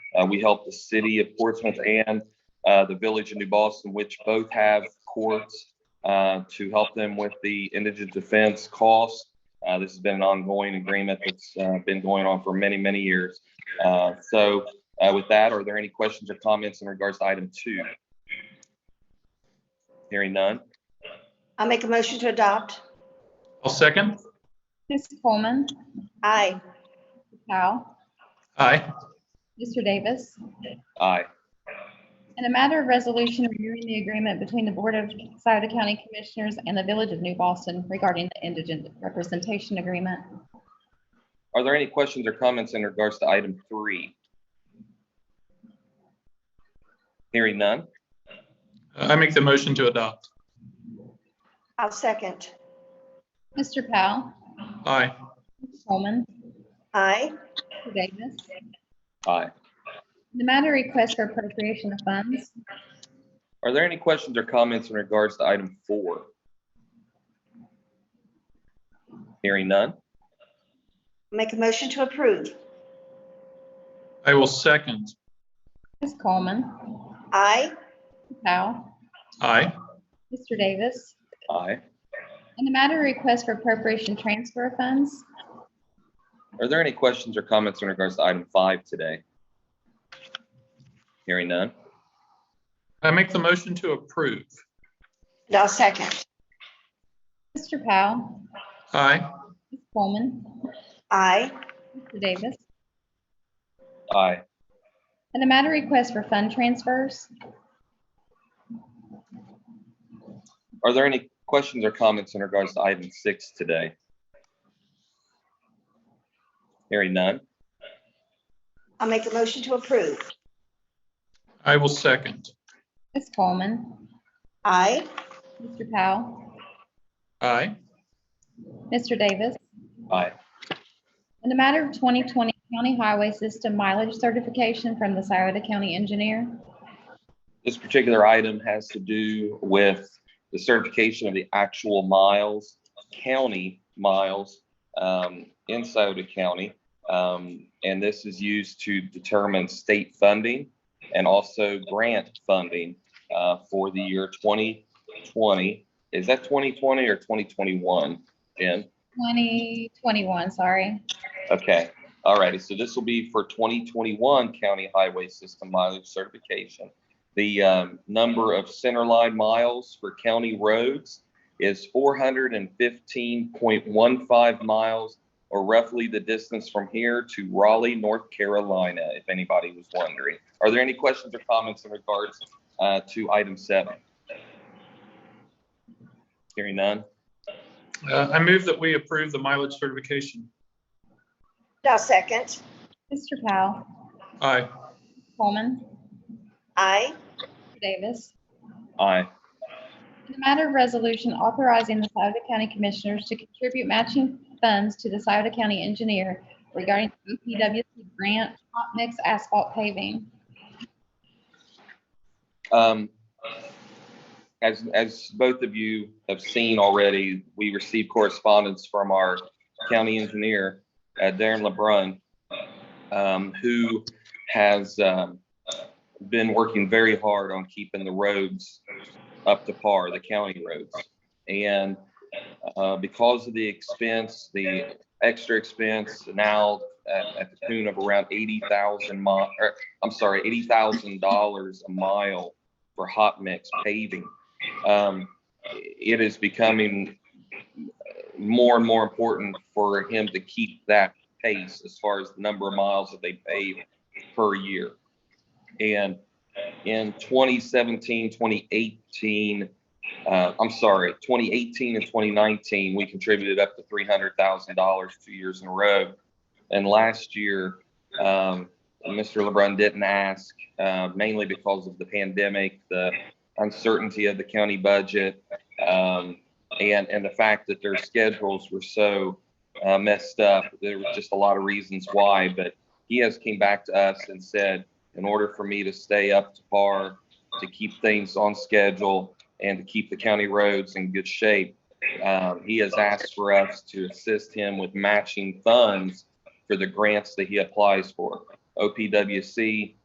Uh, we help the city of Portsmouth and, uh, the village of New Boston, which both have courts, uh, to help them with the indigent defense costs. Uh, this has been an ongoing agreement that's, uh, been going on for many, many years. Uh, so, uh, with that, are there any questions or comments in regards to item two? Hearing none. I make a motion to adopt. I'll second. Mrs. Coleman, Aye. Powell, Aye. Mr. Davis. Aye. In a matter of resolution reviewing the agreement between the Board of Souda County Commissioners and the Village of New Boston regarding the indigent representation agreement. Are there any questions or comments in regards to item three? Hearing none. I make the motion to adopt. I'll second. Mr. Powell, Aye. Mrs. Coleman, Aye. Mr. Davis. Aye. In the matter of request for appropriation of funds. Are there any questions or comments in regards to item four? Hearing none. Make a motion to approve. I will second. Mrs. Coleman, Aye. Powell, Aye. Mr. Davis. Aye. In the matter of request for appropriation transfer of funds. Are there any questions or comments in regards to item five today? Hearing none. I make the motion to approve. And I'll second. Mr. Powell, Aye. Mrs. Coleman, Aye. Mr. Davis. Aye. In the matter of request for fund transfers. Are there any questions or comments in regards to item six today? Hearing none. I'll make a motion to approve. I will second. Ms. Coleman, Aye. Mr. Powell, Aye. Mr. Davis. Aye. In the matter of 2020 county highway system mileage certification from the Souda County engineer. This particular item has to do with the certification of the actual miles, county miles, um, in Sauter County. Um, and this is used to determine state funding and also grant funding, uh, for the year twenty twenty. Is that twenty twenty or twenty twenty-one, Jen? 2021, sorry. Okay, all righty, so this will be for 2021 county highway system mileage certification. The um, number of centerline miles for county roads is 415.15 miles, or roughly the distance from here to Raleigh, North Carolina, if anybody was wondering. Are there any questions or comments in regards uh, to item seven? Hearing none, Uh, I move that we approve the mileage certification. And I'll second. Mr. Powell, Aye. Coleman, Aye. Mr. Davis. aye. In the matter of resolution authorizing the Souda County Commissioners to contribute matching funds to the Souda County engineer regarding the OPWC grant hot mix asphalt paving. Um, as, as both of you have seen already, we received correspondence from our county engineer, uh, Darren LeBrun, um, who has, um, been working very hard on keeping the roads up to par, the county roads. And, uh, because of the expense, the extra expense now at, at the tune of around eighty thousand mi, or I'm sorry, eighty thousand dollars a mile for hot mix paving. Um, it is becoming more and more important for him to keep that pace as far as the number of miles that they pave per year. And in 2017, 2018, uh, I'm sorry, 2018 and 2019, we contributed up to $300,000 two years in a row. And last year, um, Mr. LeBrun didn't ask, uh, mainly because of the pandemic, the uncertainty of the county budget, um, and, and the fact that their schedules were so uh, messed up. There was just a lot of reasons why, but he has came back to us and said, in order for me to stay up to par, to keep things on schedule, and to keep the county roads in good shape, um, he has asked for us to assist him with matching funds for the grants that he applies for. OPWC